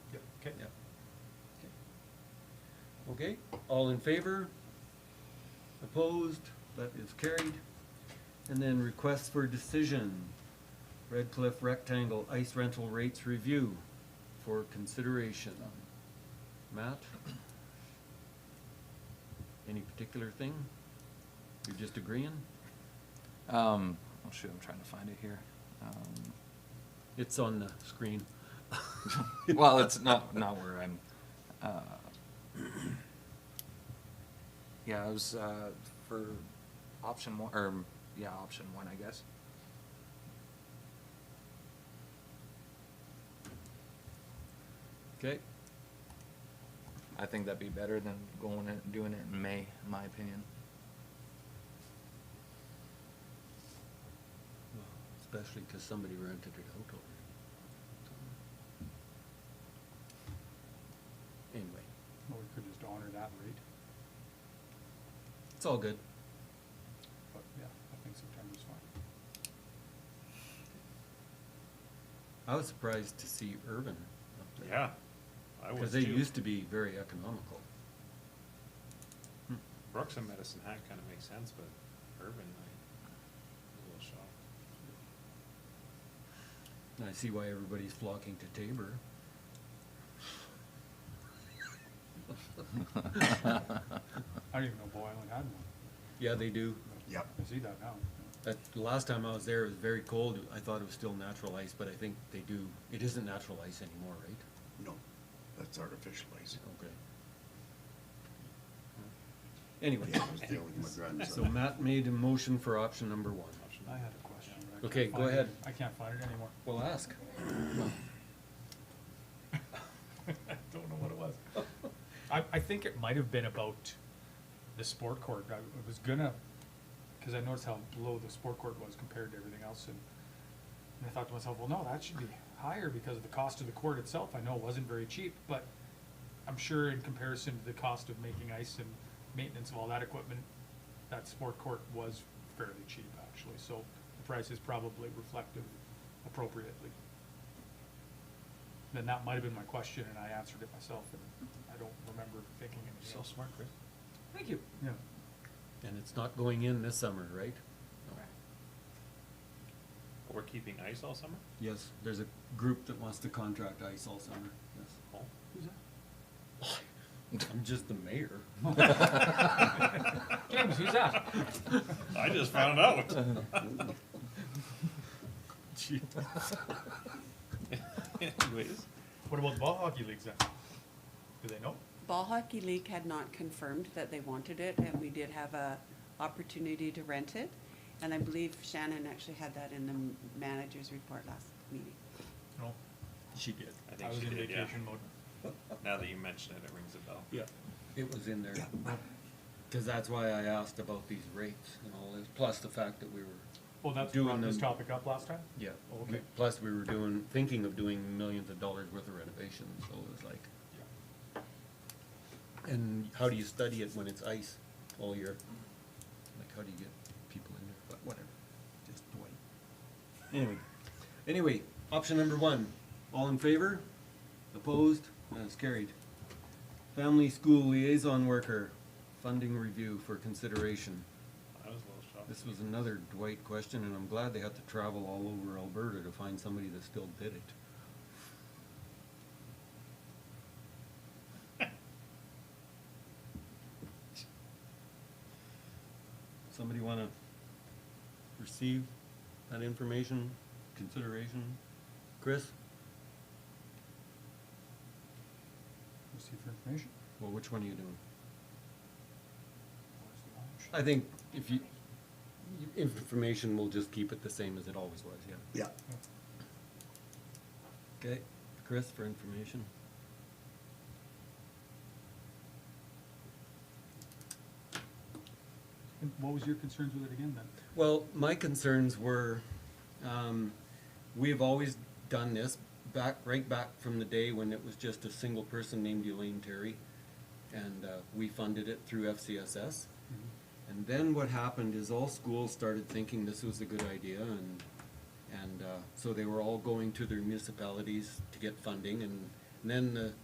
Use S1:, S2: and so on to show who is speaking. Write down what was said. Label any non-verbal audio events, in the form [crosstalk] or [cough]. S1: Okay, all in favor? Opposed? That is carried. And then requests for decision. Red Cliff Rectangle Ice Rental Rates Review for consideration. Matt? Any particular thing? You're just agreeing?
S2: Um, oh shoot, I'm trying to find it here. Um, [laughs]
S1: It's on the screen.
S2: well, it's not not where I'm. Uh, yeah, it was uh, for option one, or yeah, option one, I guess.
S1: Okay,
S2: I think that'd be better than going and doing it in May, in my opinion.
S1: Well, especially because somebody rented it out already. Anyway,
S3: Or we could just honor that rate,
S1: it's all good.
S3: but yeah, I think September's fine.
S1: I was surprised to see urban up there.
S4: Yeah, I
S1: Because
S4: was
S1: they
S4: too.
S1: used to be very economical.
S4: Brooks and Medicine Hat kind of makes sense, but Urban, I was a little shocked.
S1: And I see why everybody's flocking to Tabor.
S3: I don't even know Bow Island had one.
S1: Yeah, they do.
S3: Yep. I see that now.
S1: That, the last time I was there, it was very cold. I thought it was still natural ice, but I think they do, it isn't natural ice anymore, right?
S5: No, that's artificial ice.
S1: Okay. Anyway,
S5: Yeah, I was dealing with my
S1: so
S5: grandson.
S1: Matt made a motion for option number one.
S4: Option
S3: I had a question. but I can't
S1: Okay, go
S3: find it.
S1: ahead.
S3: I can't find it anymore. [laughs]
S1: Well, ask.
S3: I don't know what it [laughs] was. I, I think it might have been about the sport court. I I was gonna, cause I noticed how low the sport court was compared to everything else and, and I thought to myself, well, no, that should be higher because of the cost of the court itself. I know it wasn't very cheap, but I'm sure in comparison to the cost of making ice and maintenance of all that equipment, that sport court was fairly cheap actually, so the price is probably reflective appropriately then that might have been my question, and I answered it myself, and I don't remember thinking anything else.
S4: smart, Chris.
S3: Thank you. Yeah.
S1: And it's not going in this summer, right?
S4: We're keeping ice all summer?
S1: Yes, there's a group that wants to contract ice all summer,
S4: [laughs]
S1: yes.
S4: Oh,
S3: Who's that?
S1: I'm just the mayor.
S3: [laughs]
S1: [laughs]
S3: James, who's that?
S4: I just found out. [laughs] Anyways,
S3: What about the ball hockey leagues then? Do they know?
S6: Ball Hockey League had not confirmed that they wanted it, and we did have a opportunity to rent it. And I believe Shannon actually had that in the manager's report last meeting.
S3: No.
S1: She did.
S4: I
S3: I
S4: think
S3: was
S4: she
S3: in
S4: did, yeah.
S3: vacation mode.
S4: Now that you mention it, it rings a bell.
S1: Yeah. It was in there. Cause that's why I asked about these rates and all this, plus the fact that we were,
S3: Well, that's
S1: Doing
S3: brought this
S1: them.
S3: topic up last time?
S1: yeah.
S3: Oh,
S1: we-
S3: okay.
S1: Plus we were doing, thinking of doing millions of dollars worth of renovations, so it was like, and how do you study it when it's ice all year? Like, how do you get people in there, but whatever, just wait. Anyway, anyway, option number one, all in favor? Opposed? That's carried. Family School Liaison Worker, funding review for consideration.
S4: I was a little shocked.
S1: This was another Dwight question, and I'm glad they had to travel all over Alberta to find somebody that still did it. Somebody wanna receive that information, consideration? Chris?
S3: Receive for information.
S1: Well, which one are you doing?
S3: Where's the launch?
S1: I think if you, information, we'll just keep it the same as it always was, yeah.
S5: Yeah,
S1: Okay, Chris, for information.
S3: And what was your concerns with it again then?
S1: Well, my concerns were, um, we have always done this back, right back from the day when it was just a single person named Elaine Terry. And, uh, we funded it through FCSS. And then what happened is all schools started thinking this was a good idea and, and, uh, so they were all going to their municipalities to get funding and then the